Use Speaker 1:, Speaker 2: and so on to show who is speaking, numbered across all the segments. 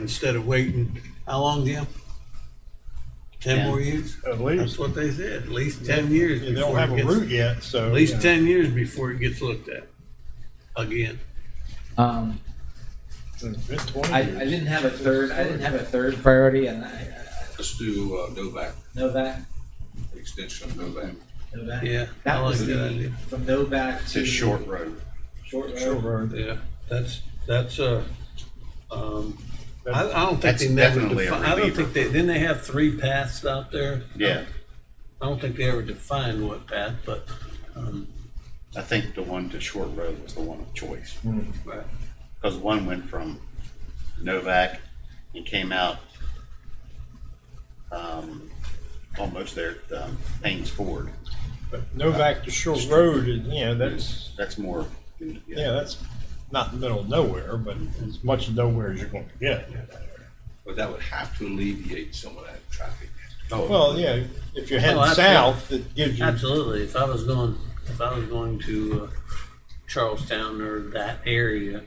Speaker 1: instead of waiting, how long, Jim? Ten
Speaker 2: Ten.
Speaker 1: more years?
Speaker 3: At
Speaker 1: That's
Speaker 3: least,
Speaker 1: what they said, at least ten years.
Speaker 3: they don't
Speaker 1: before
Speaker 3: have
Speaker 1: it
Speaker 3: a
Speaker 1: gets-
Speaker 3: route yet, so.
Speaker 1: At least
Speaker 3: yeah.
Speaker 1: ten years before it gets looked at again.
Speaker 2: Um,
Speaker 3: It's been twenty
Speaker 2: I, I
Speaker 3: years.
Speaker 2: didn't have a third, I didn't have a third priority and I, I
Speaker 4: Let's do uh, Novak,
Speaker 2: Novak,
Speaker 4: the extension of Novak.
Speaker 2: Novak.
Speaker 1: Yeah, I
Speaker 2: That
Speaker 1: like
Speaker 2: was
Speaker 1: that
Speaker 2: the,
Speaker 1: idea.
Speaker 2: from Novak to.
Speaker 4: road.
Speaker 2: Short
Speaker 3: Sure,
Speaker 2: road.
Speaker 3: bro.
Speaker 1: Yeah, that's, that's a, um, I,
Speaker 3: That's-
Speaker 1: I don't think
Speaker 5: That's
Speaker 1: they never,
Speaker 5: definitely a
Speaker 1: defi- I don't
Speaker 5: reliever.
Speaker 1: think they, didn't they have three paths out there?
Speaker 5: Yeah,
Speaker 1: I don't think they ever defined what path, but, um,
Speaker 5: I think the one to Short Road was the one of choice.
Speaker 1: right.
Speaker 5: Because one went from Novak and came out um, almost there at um, Payne's Ford.
Speaker 3: But Novak to Shore Road, is, you know, that's,
Speaker 5: That's more.
Speaker 3: yeah, that's not the middle of nowhere, but as much nowhere as you're going to get.
Speaker 4: But that would have to alleviate some of that traffic.
Speaker 3: Well, yeah, if you're
Speaker 1: Oh,
Speaker 3: heading
Speaker 1: absolutely.
Speaker 3: south, it gives you,
Speaker 1: Absolutely. If I was going, if I was going to uh, Charlestown or that area,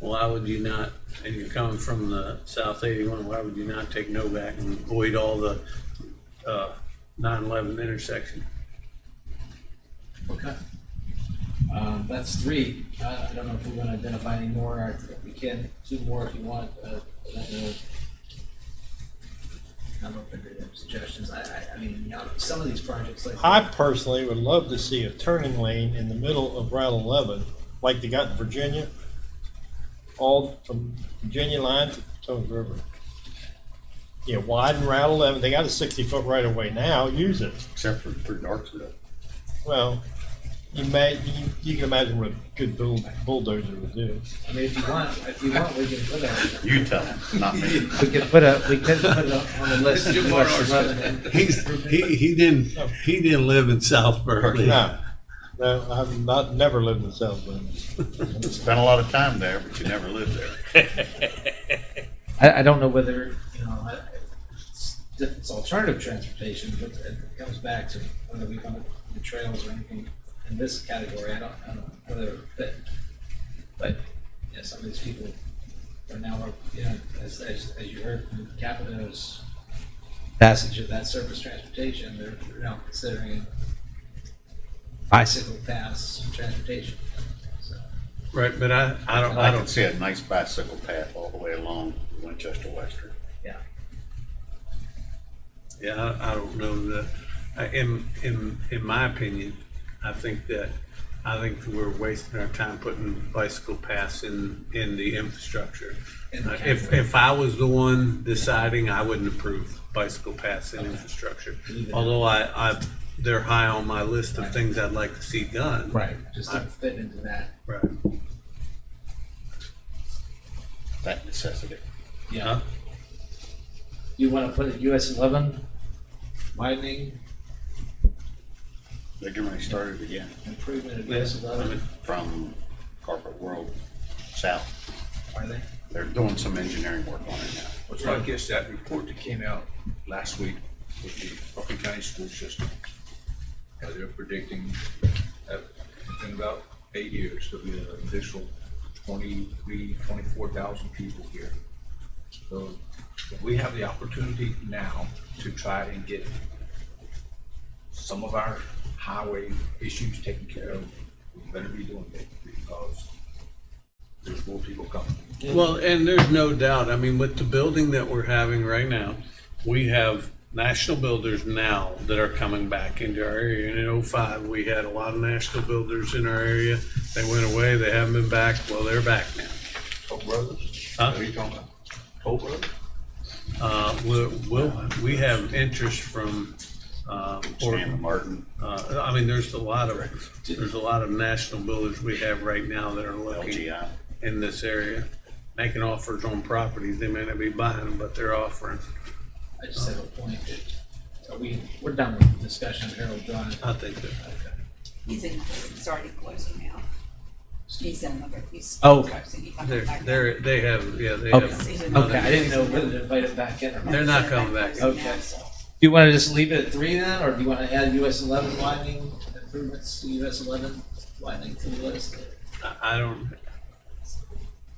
Speaker 1: why would you not? And you're coming from the South 81, why would you not take Novak and avoid all the uh, 9/11 intersection?
Speaker 2: Okay. Um, that's three. Uh, I don't know if we're gonna identify any more. or if We can, two more if you want, uh, I don't know. I'm open to suggestions. I, I, I mean, you know, some of these projects like.
Speaker 3: I personally would love to see a turning lane in the middle of Route 11, like they got in Virginia, all from Virginia line to Potomac River. Yeah, widen Route 11. They got a 60-foot right-of-way now. Use it.
Speaker 5: Except for through Darksville.
Speaker 3: Well, you may, you, you can imagine what a good bull, bulldozer would do.
Speaker 2: I mean, if you want, if you want, we can put a,
Speaker 5: You tell him, not me.
Speaker 2: we could put a, we could put it on the list.
Speaker 4: Jim Barnard's-
Speaker 1: He's, he, he didn't, he didn't live in South Berkeley.
Speaker 3: No, no, I've not, never lived in South Bend.
Speaker 5: Spent a lot of time there, but you never lived there.
Speaker 2: I, I don't know whether, you know, I- it's, it's alternative transportation, but it comes back to whether we want the trails or anything in this category, I don't, I don't know whether it fit. But, yeah, some of these people are now, you know, as, as, as you heard from Capito's passage of that surface transportation, they're they're now considering bicycle paths transportation, so.
Speaker 1: Right, but I, I don't, I
Speaker 5: I can
Speaker 1: don't,
Speaker 5: see a nice bicycle path all the way along Winchester Western.
Speaker 1: yeah, I, I don't know that. I- In, in, in my opinion, I think that, I think we're wasting our time putting bicycle paths in, in the infrastructure.
Speaker 2: in the
Speaker 1: Uh, If,
Speaker 2: category.
Speaker 1: if I was the one deciding, I wouldn't approve bicycle paths in infrastructure.
Speaker 2: Leave it out.
Speaker 1: Although I, I, they're high on my list of things I'd like to see done.
Speaker 2: Right, just to fit into that.
Speaker 1: Right.
Speaker 5: That necessity.
Speaker 1: Yeah.
Speaker 2: You want to put a US eleven widening
Speaker 5: They're getting ready to start it again
Speaker 2: improvement of US
Speaker 1: Yes, I
Speaker 2: eleven,
Speaker 1: mean,
Speaker 5: from Corporate World South.
Speaker 2: are they?
Speaker 5: They're doing some engineering work on it now.
Speaker 4: Well, so I guess that report that came out last week with the Bucking County School System, uh, they're predicting that in about eight years, there'll be an additional 23, 24,000 people here. So we have the opportunity now to try and get some of our highway issues taken care of. We better be doing it because there's more people coming.
Speaker 1: Well, and there's no doubt, I mean, with the building that we're having right now, we have national builders now that are coming back into our area. And in oh-five, we had a lot of national builders in our area. They went away, they haven't been back, well, they're back now.
Speaker 4: Toll Brothers?
Speaker 1: Huh?
Speaker 4: What are you talking about? Toll Brothers?
Speaker 1: Uh, we'll, we'll, we have interest from, uh,
Speaker 5: Stan
Speaker 1: Portland.
Speaker 5: Martin,
Speaker 1: Uh, I mean, there's a lot of, there's a lot of national builders we have right now that are looking
Speaker 5: LGI.
Speaker 1: in this area, making offers on properties. They may not be buying them, but they're offering.
Speaker 2: I just have a point that, are we, we're done with the discussion of Harold Drive.
Speaker 1: I think that,
Speaker 6: He's in, he's already closing now. He's in another, he's.
Speaker 2: Oh, okay.
Speaker 6: so he can
Speaker 1: they're,
Speaker 6: come back.
Speaker 1: they're, they have, yeah, they
Speaker 2: Okay.
Speaker 1: have.
Speaker 6: He's in
Speaker 2: Okay,
Speaker 6: another-
Speaker 2: I didn't know whether to invite him back in or not.
Speaker 1: They're
Speaker 2: Do
Speaker 1: not coming back.
Speaker 6: Closing now,
Speaker 2: Okay.
Speaker 6: so.
Speaker 2: you want to just leave it at three then, or do you want to add US eleven widening improvements to US eleven widening to the list?
Speaker 1: I, I don't,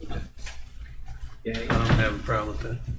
Speaker 2: Okay.
Speaker 1: I don't have a problem with that.